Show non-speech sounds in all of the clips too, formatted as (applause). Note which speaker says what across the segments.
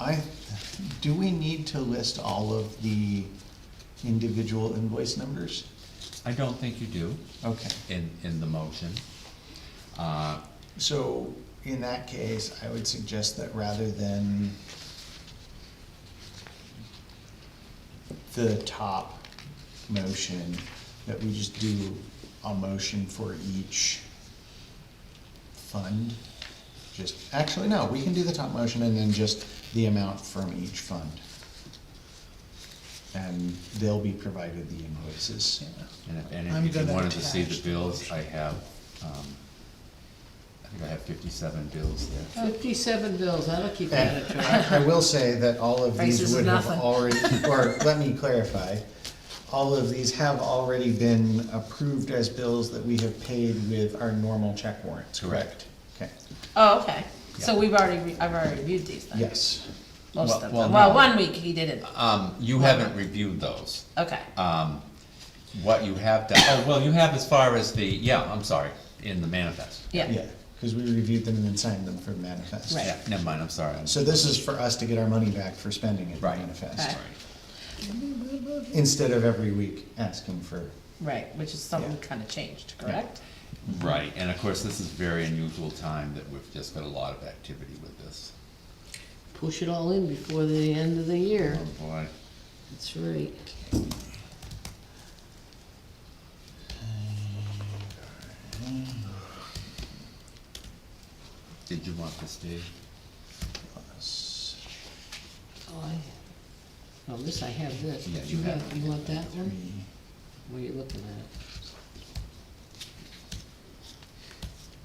Speaker 1: I, do we need to list all of the individual invoice numbers?
Speaker 2: I don't think you do
Speaker 1: Okay,
Speaker 2: in, in the motion. Uh,
Speaker 1: so in that case, I would suggest that rather than the top motion, that we just do a motion for each fund. Just, actually, no, we can do the top motion and then just the amount from each fund. And they'll be provided the invoices.
Speaker 2: And if any
Speaker 3: I'm
Speaker 2: of you
Speaker 3: gonna
Speaker 2: wanted to see the
Speaker 3: attach the
Speaker 2: bills,
Speaker 3: motion.
Speaker 2: I have, um, I think I have fifty-seven bills there.
Speaker 4: Uh,
Speaker 5: Fifty-seven bills, that'll keep you out of
Speaker 1: And
Speaker 5: trouble.
Speaker 1: I, I will say that all of
Speaker 5: Prices
Speaker 1: these
Speaker 5: of
Speaker 1: would have
Speaker 5: nothing. (laughs)
Speaker 1: already, or let me clarify, all of these have already been approved as bills that we have paid with our normal check warrants, correct? Okay,
Speaker 5: Oh, okay, so
Speaker 2: Yeah.
Speaker 5: we've already, re- I've already reviewed these then?
Speaker 1: yes,
Speaker 5: Most
Speaker 2: Well-
Speaker 5: of
Speaker 2: well,
Speaker 5: them, well,
Speaker 2: no.
Speaker 5: one week he didn't,
Speaker 2: Um, you haven't reviewed those.
Speaker 5: okay,
Speaker 2: Um, what you have done, oh, well, you have as far as the, yeah, I'm sorry, in the manifest.
Speaker 5: yeah,
Speaker 1: yeah, cause we reviewed them and then signed them for manifest.
Speaker 5: Right.
Speaker 2: Yeah, never mind, I'm sorry. I'm
Speaker 1: So this is for us to get our money back for spending it
Speaker 2: Right.
Speaker 1: manifest,
Speaker 5: Right.
Speaker 2: sorry.
Speaker 1: instead of every week asking for,
Speaker 5: right, which is something
Speaker 1: Yeah.
Speaker 5: kinda changed, correct?
Speaker 2: Right, and of course, this is very unusual time that we've just got a lot of activity with this.
Speaker 4: Push it all in before the end of the
Speaker 2: Oh,
Speaker 4: year.
Speaker 2: boy.
Speaker 4: That's right.
Speaker 2: Did you want this, Dave?
Speaker 1: us.
Speaker 4: Oh, I, oh, this, I have this.
Speaker 2: Yeah,
Speaker 4: but
Speaker 2: you have
Speaker 4: got-
Speaker 2: it.
Speaker 4: You want that one?
Speaker 1: Three.
Speaker 4: What are you looking at?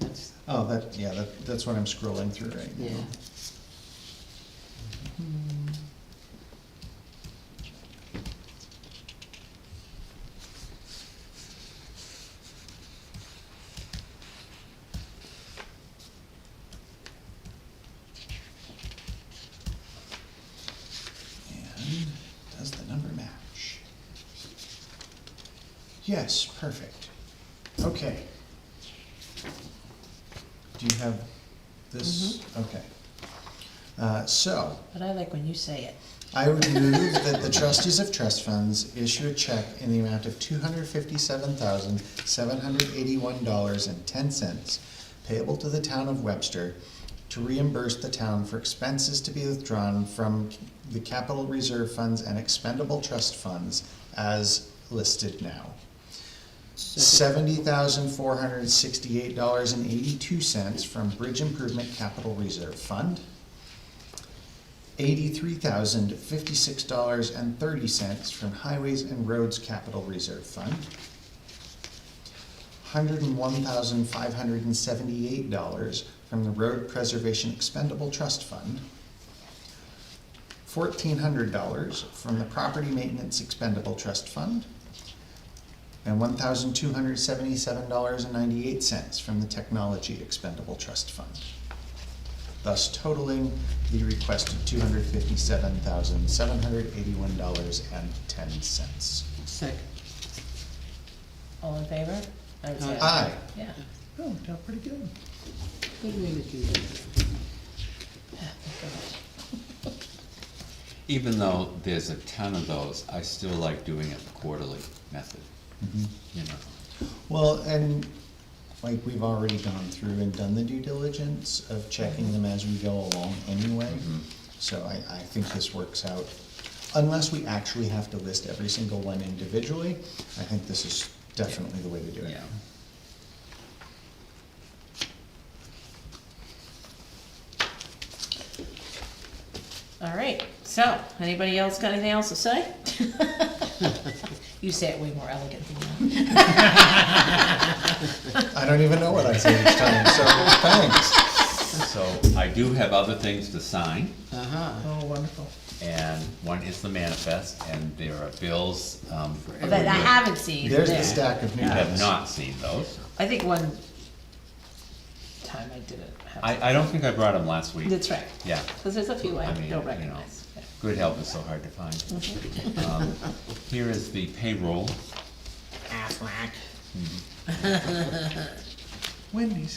Speaker 4: That's,
Speaker 1: Oh, that, yeah, that, that's what I'm scrolling through right now.
Speaker 4: yeah.
Speaker 1: And does the number match? Yes, perfect. Okay. Do you have this? Okay. Uh, so,
Speaker 5: But I like when you say it,
Speaker 1: I would move that the trustees of trust funds issue a check in the amount of two hundred fifty-seven thousand, seven hundred eighty-one dollars and ten cents payable to the town of Webster to reimburse the town for expenses to be withdrawn from the capital reserve funds and expendable trust funds as listed now. Seventy thousand, four hundred sixty-eight dollars and eighty-two cents from Bridge Improvement Capital Reserve Fund eighty-three thousand fifty-six dollars and thirty cents from Highways and Roads Capital Reserve Fund, hundred and one thousand five hundred and seventy-eight dollars from the Road Preservation Expendable Trust Fund, fourteen hundred dollars from the Property Maintenance Expendable Trust Fund, and one thousand two hundred seventy-seven dollars and ninety-eight cents from the Technology Expendable Trust Fund thus totaling the requested two hundred fifty-seven thousand, seven hundred eighty-one dollars and ten cents.
Speaker 4: Second.
Speaker 5: all in favor? I
Speaker 4: Uh,
Speaker 5: would say
Speaker 2: uh,
Speaker 1: Aye,
Speaker 5: Yeah,
Speaker 3: Oh, it got pretty good.
Speaker 4: Good way to do that.
Speaker 2: Even though there's a ton of those, I still like doing it the quarterly method, you know.
Speaker 1: well, and like, we've already gone through and done the due diligence of checking them as we go along anyway. So I, I think this works out, unless we actually have to list every single one individually, I think this is definitely the way to do it.
Speaker 2: Yeah.
Speaker 5: all right, so, anybody else got anything else to say? You say it way more elegant than that.
Speaker 1: I don't even know what I say each time, so thanks.
Speaker 2: So I do have other things to sign,
Speaker 4: Uh-huh.
Speaker 3: Oh, wonderful.
Speaker 2: and one is the manifest, and there are bills, um.
Speaker 5: But I haven't seen.
Speaker 1: There's the
Speaker 5: there.
Speaker 1: stack of new
Speaker 2: You have
Speaker 1: ones.
Speaker 2: not seen those.
Speaker 5: I think one time I didn't have.
Speaker 2: I, I don't think I brought them last week.
Speaker 5: That's right,
Speaker 2: Yeah.
Speaker 5: cause there's a few I
Speaker 2: I mean, you
Speaker 5: don't
Speaker 2: know,
Speaker 5: recognize. Yeah.
Speaker 2: Good help is so hard to find. Um, Here is the payroll.
Speaker 3: Wendy's.